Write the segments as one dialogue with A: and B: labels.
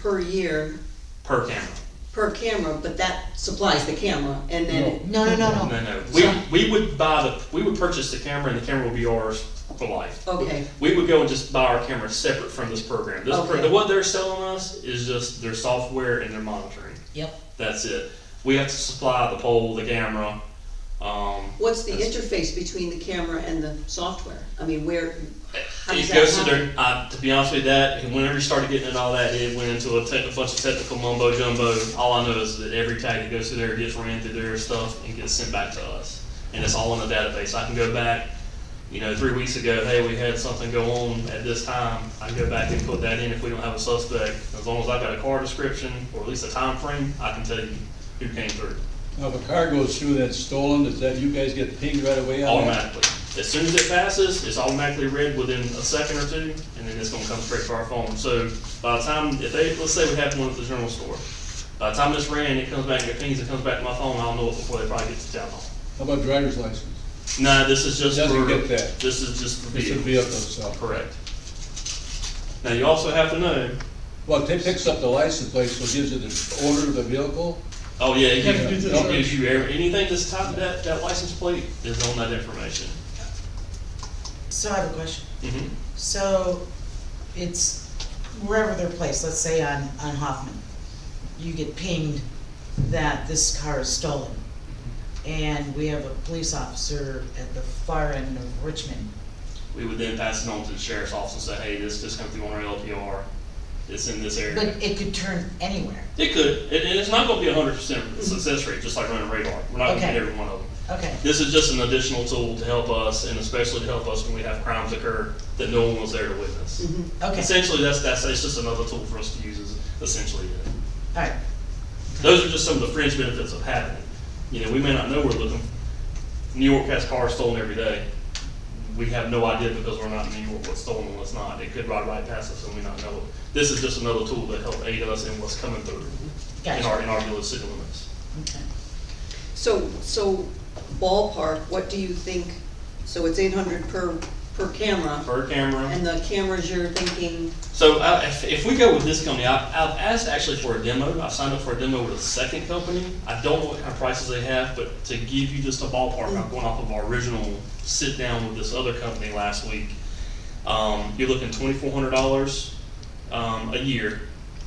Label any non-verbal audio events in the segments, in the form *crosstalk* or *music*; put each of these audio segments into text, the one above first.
A: per year,
B: per camera.
A: per camera, but that supplies the camera, and then,
C: No, no,
A: Oh.
C: no,
B: No,
C: no.
B: no, we, we would buy the, we would purchase the camera and the camera would be ours for life.
A: okay,
B: We would go and just buy our camera separate from this program. This, pro-
A: Okay.
B: what they're selling us is just their software and their monitoring.
C: Yep.
B: That's it. We have to supply the pole, the camera, um,
A: what's the
B: That's-
A: interface between the camera and the software? I mean, where, How does
B: It
A: that
B: goes to
A: happen?
B: their, uh, to be honest with you, that, and whenever you started getting into all that, it went into a tech- a bunch of technical mumbo jumbo. All I know is that every tag that goes through there gets ran through their stuff and gets sent back to us. And it's all in the database. I can go back, you know, three weeks ago, hey, we had something go on at this time. I can go back and put that in if we don't have a suspect. As long as I've got a car description or at least a time frame, I can tell you who came through
D: Now, if a car goes through that's stolen, does that, you guys get pinged right away on that?
B: automatically. As soon as it passes, it's automatically read within a second or two, and then it's gonna come straight to our phone. So by the time, if they, let's say we have one at the general store, by the time it's ran, it comes back, it pings, it comes back to my phone, I'll know it before they probably get to town hall.
D: How about driver's license?
B: No, this is just
D: Doesn't
B: for,
D: get that.
B: this is just for
D: It's a
B: vehicles.
D: vehicle, so.
B: Correct. Now, you also have to know,
D: Well, if it picks up the license plate, so it gives you the order of the vehicle,
B: oh yeah, it
D: Yeah.
B: gives- it gives you, every- anything that's tied to that, that license plate is on that information.
C: So I have a question.
B: Mhm.
C: So it's wherever they're placed, let's say on, on Hoffman, you get pinged that this car is stolen. And we have a police officer at the far end of Richmond.
B: We would then pass it on to the sheriff's office and say, hey, this just come through on our LPR, it's in this area.
C: But it could turn anywhere.
B: It could, and, and it's not gonna be a hundred percent success rate, just like running radar, we're not gonna
C: Okay.
B: hit every one of them.
C: Okay,
B: This is just an additional tool to help us, and especially to help us when we have crimes occur that no one was there to witness.
A: mhm,
C: Mm-hmm. okay, all
B: Essentially, that's, that's, it's just another tool for us to use, is essentially it
C: right.
B: those are just some of the fringe benefits of having it. You know, we may not know we're looking, New York has cars stolen every day. We have no idea because we're not in New York what's stolen and what's not. It could ride right past us and we not know it. This is just another tool that help aid us in what's coming through in our,
C: Gotcha.
B: in our village city limits.
C: Okay.
A: so, so ballpark, what do you think, so it's eight hundred per, per camera,
B: Per camera.
A: and the cameras you're thinking,
B: So I, if, if we go with this company, I, I've asked actually for a demo. I've signed up for a demo with a second company. I don't know what kind of prices they have, but to give you just a ballpark, I'm going off of our original sit down with this other company last week. Um, you're looking twenty-four hundred dollars, um, a year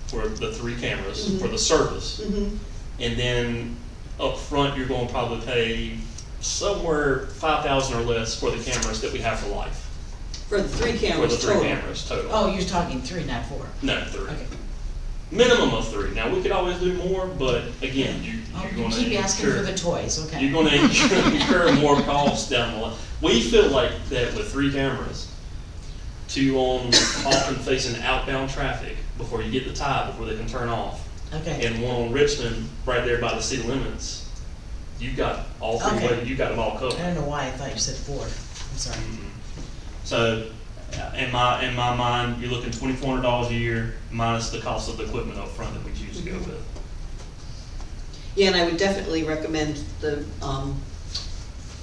B: for the three
C: Mm-hmm.
B: cameras, for the service.
A: mhm,
B: And then up front, you're going to probably pay somewhere five thousand or less for the cameras that we have for life,
A: for the three
B: for the
A: cameras
B: three
A: total?
B: cameras total.
C: Oh, you're talking three, not four.
B: No, three.
C: Okay.
B: Minimum of three. Now, we could always do more, but again, you,
C: Oh,
B: you're
C: you
B: gonna
C: keep asking for the
B: incur,
C: toys,
B: you're
C: okay. *laughs*
B: gonna incur more costs down the line. We feel like that with three cameras, two on, often facing outbound traffic before you get the tie, before they can turn off,
C: Okay,
B: and one on Richmond, right there by the city limits, you got all three,
C: Okay.
B: wa- you got them all
C: I
B: covered.
C: don't know why I thought you said four, I'm sorry.
B: So, uh, in my, in my mind, you're looking twenty-four hundred dollars a year minus the cost of the equipment up front that we choose to go
C: Mm-hmm.
B: with.
A: Yeah, and I would definitely recommend the, um,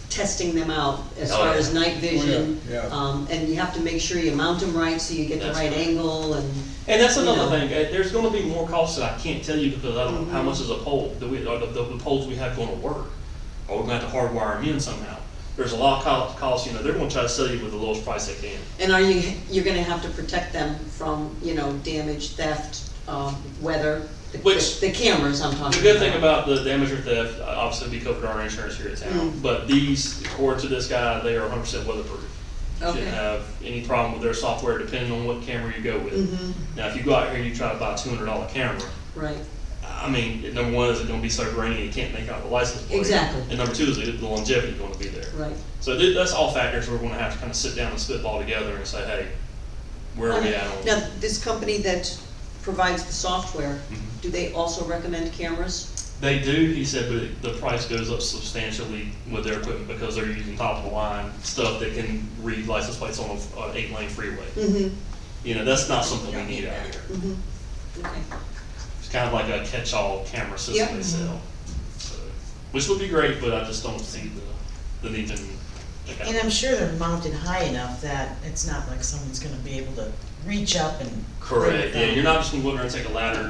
A: testing them out as
B: Oh,
A: far
B: yeah.
A: as night vision.
D: yeah.
A: Um, and you have to make sure you mount them right, so you get the
B: That's
A: right
B: right.
A: angle, and,
B: And that's another
A: No.
B: thing. uh, There's going to be more costs that I can't tell you because I don't know how much is a pole. Do we, are the, the, the poles we have going to work? Are we going to have to hardwire them in somehow? There's a lot of co- costs. You know, they're going to try to sell you with the lowest price they can.
A: and are you, you're gonna have to protect them from, you know, damage, theft, um, weather, the,
B: Which-
A: the cameras I'm talking about.
B: The good thing about the damage or theft, uh, obviously, be covered by our insurance here at town.
A: Mm.
B: But these, according to this guy, they are 100% weatherproof.
A: Okay.
B: Shouldn't have any problem with their software, depending on what camera you go with.
A: Mhm.
B: Now, if you go out here and you try to buy a $200 camera,
A: Right,
B: I mean, number one, is it gonna be so grainy it can't make out the license plate?
A: Exactly.
B: And number two, is it- the longevity gonna be there?
A: right.
B: So th- that's all factors we're gonna have to kinda sit down and spitball together and say, hey, where are we at on?
A: Now, this company that provides the software,
B: Mhm.
A: do they also recommend cameras?
B: They do, he said, but it- the price goes up substantially with their equipment because they're using top of the line stuff that can read license plates on a- an eight lane freeway.
A: Mm-hmm,
B: You know, that's not something we need out here.
A: mm-hmm, okay.
B: It's kind of like a catch-all
A: Yep.
B: camera system they sell. So, Which would be great, but I just don't see the, the need to.
C: And I'm sure they're mounted high enough that it's not like someone's gonna be able to reach up and. bring it
B: Correct, yeah,
C: down.
B: you're not just gonna go up there and take a ladder